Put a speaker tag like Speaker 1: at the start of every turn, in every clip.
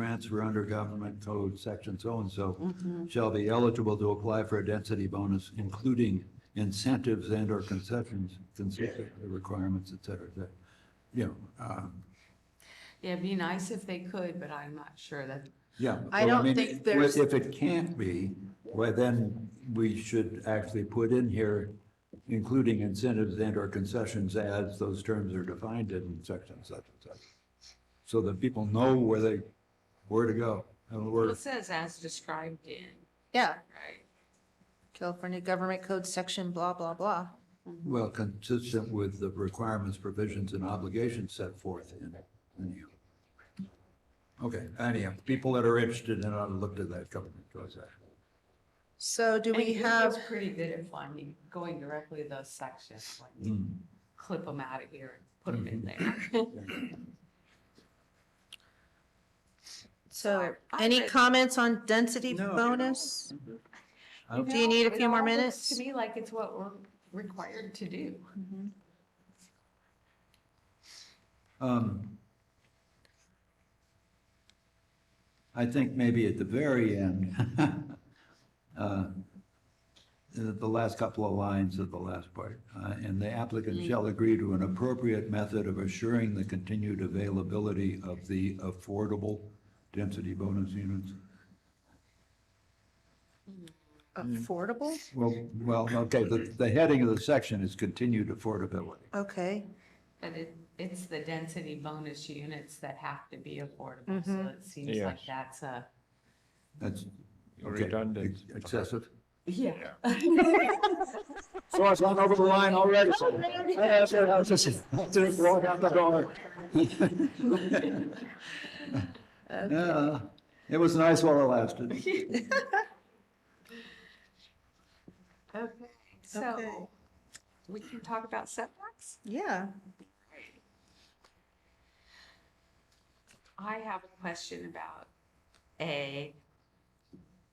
Speaker 1: transfer under government code section
Speaker 2: Mm-hmm.
Speaker 1: so-and-so shall be eligible to apply for a density bonus, including incentives and/or concessions, consistent with the requirements, et cetera, et cetera. You know, uh,
Speaker 2: Yeah, it'd be nice if they could, but I'm not sure that,
Speaker 1: yeah.
Speaker 2: I
Speaker 1: so,
Speaker 2: don't
Speaker 1: mean,
Speaker 2: think there's-
Speaker 1: If it can't be, well, then we should actually put in here, including incentives and/or concessions as those terms are defined in section such and such. So that people know where they, where to go and
Speaker 2: well,
Speaker 1: where.
Speaker 2: it says as described in,
Speaker 3: Yeah,
Speaker 2: right?
Speaker 3: California Government Code section, blah, blah, blah.
Speaker 1: Well, consistent with the requirements, provisions, and obligations set forth in it. Anyhow. Okay, anyhow, people that are interested in it ought to look to that government code section.
Speaker 3: So do
Speaker 2: And
Speaker 3: we
Speaker 2: Google
Speaker 3: have,
Speaker 2: was pretty good at finding, going directly to those sections, like
Speaker 1: Mm.
Speaker 2: clip them out of here and put them in there.
Speaker 3: so
Speaker 2: I
Speaker 3: any
Speaker 2: read-
Speaker 3: comments on density
Speaker 1: No, you don't.
Speaker 3: bonus?
Speaker 1: I don't-
Speaker 3: Do you need a
Speaker 2: It
Speaker 3: few more
Speaker 2: all looks
Speaker 3: minutes?
Speaker 2: To me, like it's what we're required to do.
Speaker 1: Um, I think maybe at the very end, uh, the the last couple of lines of the last part, uh, and the applicant shall agree to an appropriate method of assuring the continued availability of the affordable density bonus units.
Speaker 3: Affordable?
Speaker 1: Well, well, okay, the, the heading of the section is continued affordability.
Speaker 3: Okay,
Speaker 2: But it, it's the density bonus units that have to be affordable, so it seems
Speaker 4: Yes.
Speaker 2: like that's a.
Speaker 1: That's. okay,
Speaker 4: redundant.
Speaker 1: ex- Excessive.
Speaker 2: Yeah.
Speaker 4: So I've gone over the line already.
Speaker 2: Oh,
Speaker 4: so- Yeah, so I was just- just walk out the door.
Speaker 1: Yeah, it was nice while it lasted.
Speaker 2: Okay,
Speaker 3: Okay.
Speaker 2: so we can talk about setbacks?
Speaker 3: yeah.
Speaker 2: I have a question about A,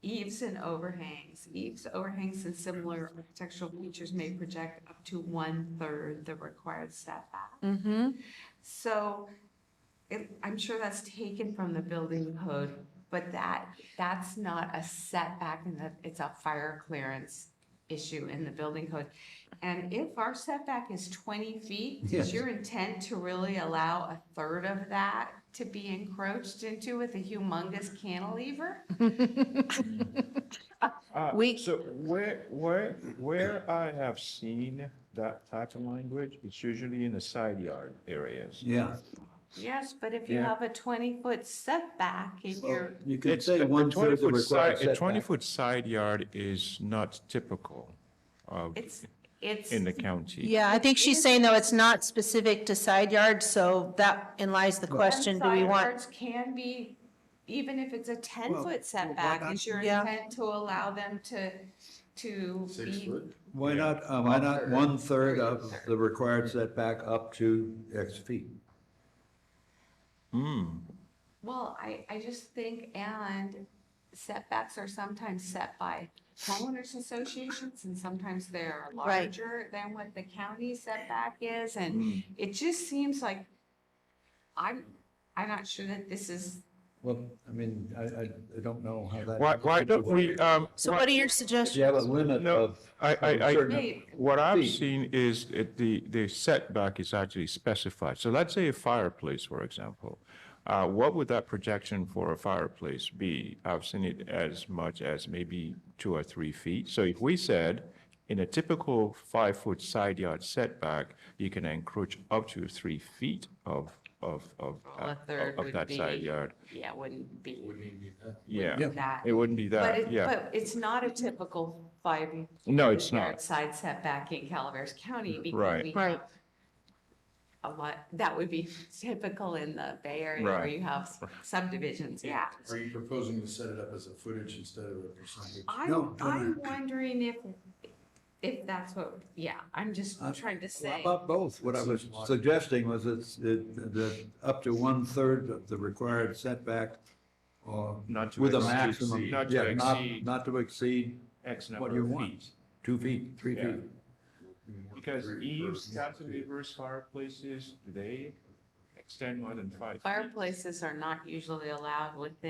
Speaker 2: eaves and overhangs. Eaves, overhangs, and similar architectural features may project up to one-third the required setback.
Speaker 3: Mm-hmm.
Speaker 2: So it, I'm sure that's taken from the building code, but that, that's not a setback and that it's a fire clearance issue in the building code. And if our setback is twenty feet,
Speaker 1: Yes.
Speaker 2: is your intent to really allow a third of that to be encroached into with a humongous cantilever?
Speaker 4: Uh,
Speaker 3: We-
Speaker 4: So where, where, where I have seen that type of language, it's usually in the side yard areas.
Speaker 1: Yeah.
Speaker 2: Yes, but if you
Speaker 4: Yeah.
Speaker 2: have a twenty-foot setback and you're,
Speaker 1: You could
Speaker 4: It's
Speaker 1: say
Speaker 4: a- a
Speaker 1: one third
Speaker 4: 20
Speaker 1: the
Speaker 4: foot
Speaker 1: required
Speaker 4: side- A
Speaker 1: setback.
Speaker 4: twenty-foot side yard is not typical of,
Speaker 2: it's, it's.
Speaker 4: in the county.
Speaker 3: Yeah, I think she's saying though, it's not specific to side yards, so that in lies the question, do we
Speaker 2: Side
Speaker 3: want?
Speaker 2: yards Can be, even if it's a
Speaker 1: Well, well, why
Speaker 2: ten-foot setback,
Speaker 1: not-
Speaker 2: is your
Speaker 3: Yeah.
Speaker 2: intent to allow them to, to be?
Speaker 1: Why not, uh, why not one third of the required setback up to X feet?
Speaker 2: Well, I, I just think, and setbacks are sometimes set by homeowners associations, and sometimes they're
Speaker 3: Right.
Speaker 2: larger than what the county setback is,
Speaker 1: Hmm.
Speaker 2: and it just seems like, I'm, I'm not sure that this is,
Speaker 1: Well, I mean, I, I, I don't know how that.
Speaker 4: Why, why don't we, um.
Speaker 3: So
Speaker 4: why-
Speaker 3: what are your
Speaker 1: If you have a
Speaker 3: suggestions?
Speaker 1: limit
Speaker 4: No,
Speaker 1: of.
Speaker 4: I, I, I,
Speaker 2: Wait.
Speaker 4: what I've
Speaker 1: Feet.
Speaker 4: seen is it- the, the setback is actually specified. So let's say a fireplace, for example. Uh, what would that projection for a fireplace be? I've seen it as much as maybe two or three feet. So if we said, in a typical five-foot side yard setback, you can encroach up to three feet of, of, of,
Speaker 2: Well, a
Speaker 4: uh,
Speaker 2: third
Speaker 4: of
Speaker 2: would
Speaker 4: that side
Speaker 2: be-
Speaker 4: yard.
Speaker 2: yeah, wouldn't be
Speaker 4: Yeah,
Speaker 2: that.
Speaker 4: it wouldn't be
Speaker 2: But
Speaker 4: that,
Speaker 2: it,
Speaker 4: yeah.
Speaker 2: but it's not a typical five.
Speaker 4: No, it's
Speaker 2: yard
Speaker 4: not.
Speaker 2: Side setback in Calaveras County. because
Speaker 4: Right.
Speaker 2: we
Speaker 3: Right.
Speaker 2: have A lot, that would be typical in the Bay Area where
Speaker 4: Right.
Speaker 2: you have subdivisions, yeah.
Speaker 5: Are you proposing to set it up as a footage instead of a percentage?
Speaker 1: No,
Speaker 2: I'm,
Speaker 1: no, no.
Speaker 2: I'm wondering if, if that's what, yeah, I'm just
Speaker 1: Uh,
Speaker 2: trying to
Speaker 1: How
Speaker 2: say.
Speaker 1: about both? What I was suggesting was it's, it, that up to one third of the required setback uh, or
Speaker 4: Not to
Speaker 1: with a
Speaker 4: exceed-
Speaker 1: maximum.
Speaker 4: not to
Speaker 1: yeah,
Speaker 4: exceed-
Speaker 1: Not to exceed
Speaker 4: X
Speaker 1: what
Speaker 4: number
Speaker 1: you
Speaker 4: of
Speaker 1: want,
Speaker 4: feet.
Speaker 1: two feet, three
Speaker 4: Yeah.
Speaker 1: feet.
Speaker 4: Because
Speaker 5: Three
Speaker 4: eaves,
Speaker 5: versus-
Speaker 4: cantilevers, fireplaces, they extend more than five feet.
Speaker 2: Fireplaces are not usually allowed within